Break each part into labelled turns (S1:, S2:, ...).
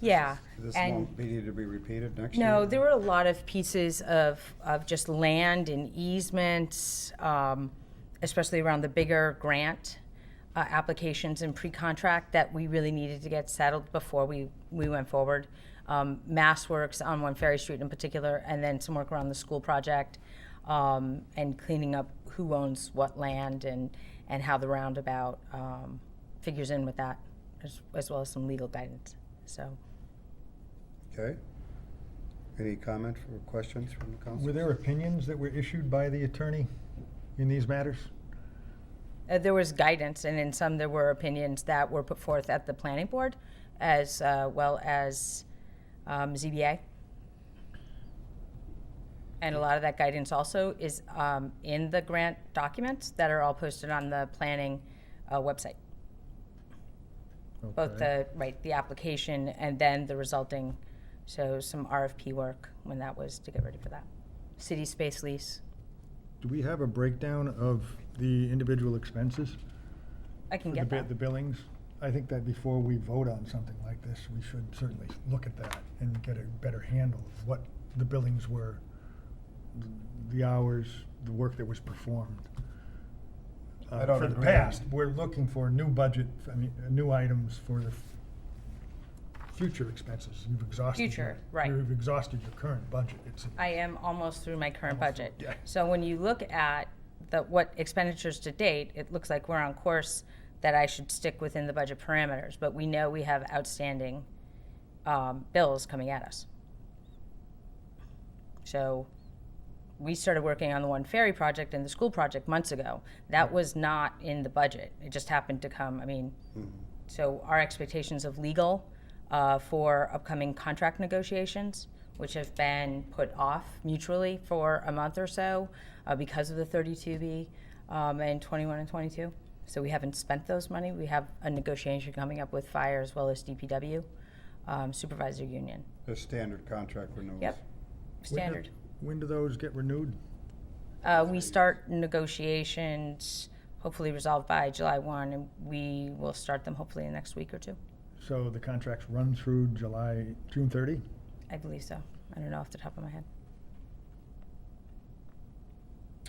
S1: Yeah,
S2: This
S1: and-
S2: won't be, need to be repeated next year?
S1: No, there were a lot of pieces of, of just land and easements, um, especially around the bigger grant uh, applications and pre-contract that we really needed to get settled before we, we went forward. Um, Mass Works on One Ferry Street in particular, and then some work around the school project, um, and cleaning up who owns what land and, and how the roundabout, um, figures in with that, as, as well as some legal guidance, so.
S2: Okay. Any comments or questions from the council?
S3: Were there opinions that were issued by the attorney in these matters?
S1: Uh, There was guidance, and in some, there were opinions that were put forth at the planning board as uh, well as um, ZBA. And a lot of that guidance also is um, in the grant documents that are all posted on the planning uh, website. Both
S3: Okay.
S1: the, right, the application and then the resulting, so some RFP work when that was to get ready for that. City space lease.
S3: Do we have a breakdown of the individual expenses?
S1: I can
S3: for the
S1: get
S3: bi-
S1: that.
S3: The billings? I think that before we vote on something like this, we should certainly look at that and get a better handle of what the billings were, the hours, the work that was performed. uh,
S2: I don't
S3: For the
S2: agree.
S3: past, we're looking for new budget, I mean, uh, new items for the f- future expenses. You've exhausted. your-
S1: Future, right. Uh,
S3: You've exhausted your current budget. It's,
S1: I am almost through my current
S3: Almost
S1: budget.
S3: through, yeah.
S1: So when you look at the, what expenditures to date, it looks like we're on course that I should stick within the budget parameters, but we know we have outstanding um, bills coming at us. So we started working on the One Ferry project and the school project months ago. That was not in the budget. It just happened to come, I mean, so our expectations of legal uh, for upcoming contract negotiations, which have been put off mutually for a month or so uh, because of the 32B um, and 21 and 22. So we haven't spent those money. We have a negotiation coming up with fire as well as DPW, um, supervisor union.
S2: The standard contract renewals.
S1: Yep, standard.
S3: When do those get renewed?
S1: Uh, we start negotiations, hopefully resolved by July 1, and we will start them hopefully in the next week or two.
S3: So the contracts run through July, June 30?
S1: I believe so. I don't know off the top of my head.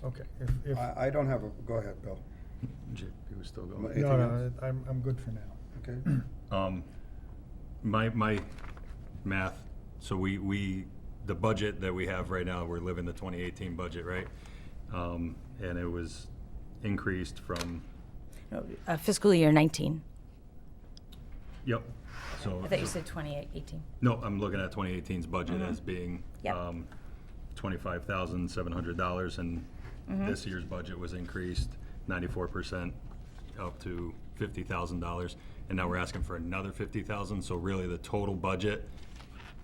S3: Okay. If, if,
S2: I, I don't have a, go ahead, Bill.
S4: J- He was still
S2: My-
S4: going.
S3: no,
S2: anything
S3: no,
S2: else?
S3: I'm, I'm good for now.
S2: Okay,
S4: Um, my, my math, so we, we, the budget that we have right now, we're living the twenty eighteen budget, right? Um, and it was increased from,
S1: No, uh, Fiscal year 19.
S4: yep, so.
S1: I thought you said 2018.
S4: No, I'm looking at 2018's budget as being
S1: Mm-hmm. Yep.
S4: um, $25,700, and
S1: Mm-hmm.
S4: this year's budget was increased 94% up to $50,000. And now we're asking for another 50,000, so really the total budget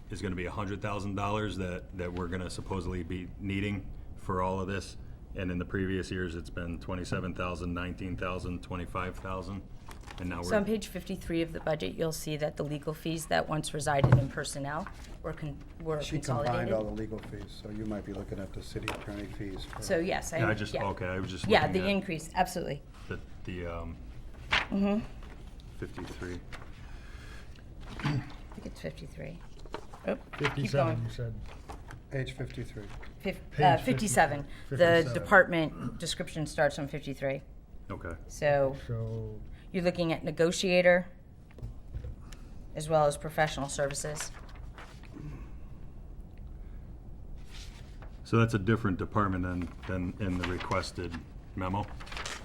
S4: is gonna be $100,000 that, that we're gonna supposedly be needing for all of this. And in the previous years, it's been 27,000, 19,000, 25,000, and now we're.
S1: So on page 53 of the budget, you'll see that the legal fees that once resided in personnel were con- were
S2: she combined all
S1: consolidated.
S2: the legal fees, so you might be looking at the city attorney fees. for-
S1: So yes, I,
S4: Yeah, I just,
S1: yeah.
S4: okay, I was just
S1: Yeah,
S4: looking
S1: the
S4: at-
S1: increase, absolutely.
S4: The, the, um, fifty-three.
S1: I think it's 53. going.
S3: 57, you said.
S2: Page fifty-three.
S1: Fif- uh,
S3: Page
S1: 57.
S3: 53.
S1: The
S3: 57.
S1: department description starts on 53.
S4: Okay.
S1: So
S3: So,
S1: you're looking at negotiator as well as professional services.
S4: So that's a different department than, than in the requested memo?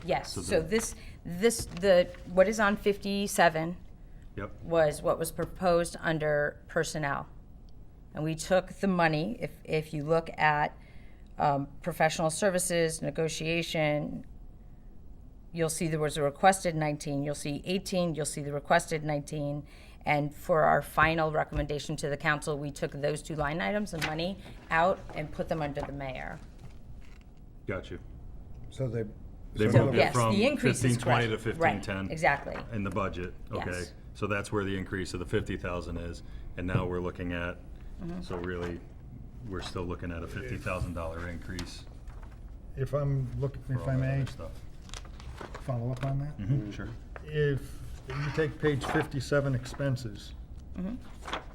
S1: Yes,
S4: So
S1: so
S4: the-
S1: this, this, the, what is on 57
S4: Yep,
S1: was what was proposed under personnel. And we took the money, if, if you look at um, professional services, negotiation, you'll see there was a requested 19, you'll see 18, you'll see the requested 19. And for our final recommendation to the council, we took those two line items of money out and put them under the mayor.
S4: got you.
S2: So they.
S4: They
S2: so
S4: moved
S1: So
S4: it
S1: yes,
S4: from
S1: the increase is
S4: 1520 to
S1: correct. Right,
S4: 1510.
S1: Exactly.
S4: In the budget, okay.
S1: Yes.
S4: So that's where the increase of the fifty thousand is, and now we're looking at, so really, we're still looking at a fifty thousand dollar increase
S3: if I'm looking,
S4: for
S3: if
S4: all
S3: I
S4: that
S3: may
S4: other stuff. Hmm. Mm-hmm,
S3: follow up on that?
S4: Mhm, Sure.
S3: If you take page 57 expenses,